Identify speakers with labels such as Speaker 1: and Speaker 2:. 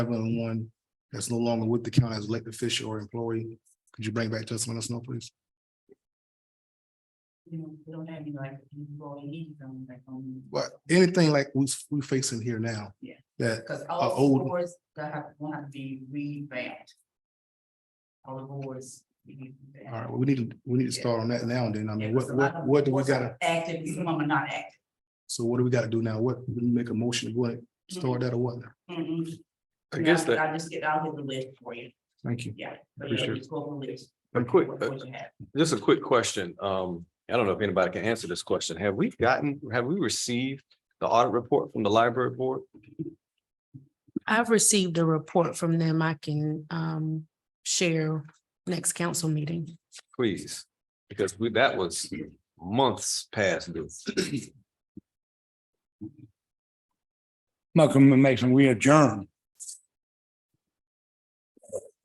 Speaker 1: and one that's no longer with the county as elected official or employee. Could you bring back to us and let us know, please?
Speaker 2: You know, we don't have any like employees um, on back home.
Speaker 1: But anything like we, we facing here now.
Speaker 2: Yeah.
Speaker 1: That,
Speaker 2: Cause
Speaker 1: Uh,
Speaker 2: all
Speaker 1: old-
Speaker 2: boards that have, will have to be revamped. All the boards. we need to
Speaker 1: all
Speaker 2: revamp.
Speaker 1: right, well, we need, to we need to start on that now and then. I
Speaker 2: Yeah,
Speaker 1: mean,
Speaker 2: 'cause
Speaker 1: what,
Speaker 2: a lot
Speaker 1: what,
Speaker 2: of
Speaker 1: what do we
Speaker 2: boards are
Speaker 1: gotta,
Speaker 2: Active, some of them are not active.
Speaker 1: so what do we gotta do now? What, we make a motion to go ahead,
Speaker 2: Mm-hmm.
Speaker 1: start that or what?
Speaker 2: Mm-mm.
Speaker 3: I guess
Speaker 2: Yeah,
Speaker 3: that,
Speaker 2: I'll just get, I'll get the list for you,
Speaker 1: Thank you.
Speaker 2: yeah. But yeah,
Speaker 3: Appreciate it.
Speaker 2: just go over the list.
Speaker 3: a quick,
Speaker 2: What-
Speaker 3: uh,
Speaker 2: what you have.
Speaker 3: just a quick question. Um, I don't know if anybody can answer this question. Have we gotten, have we received the audit report from the library board?
Speaker 4: I've received a report from them I can um share next council meeting.
Speaker 3: Please, because we, that was months past due.
Speaker 5: Malcolm and Mason, we adjourn.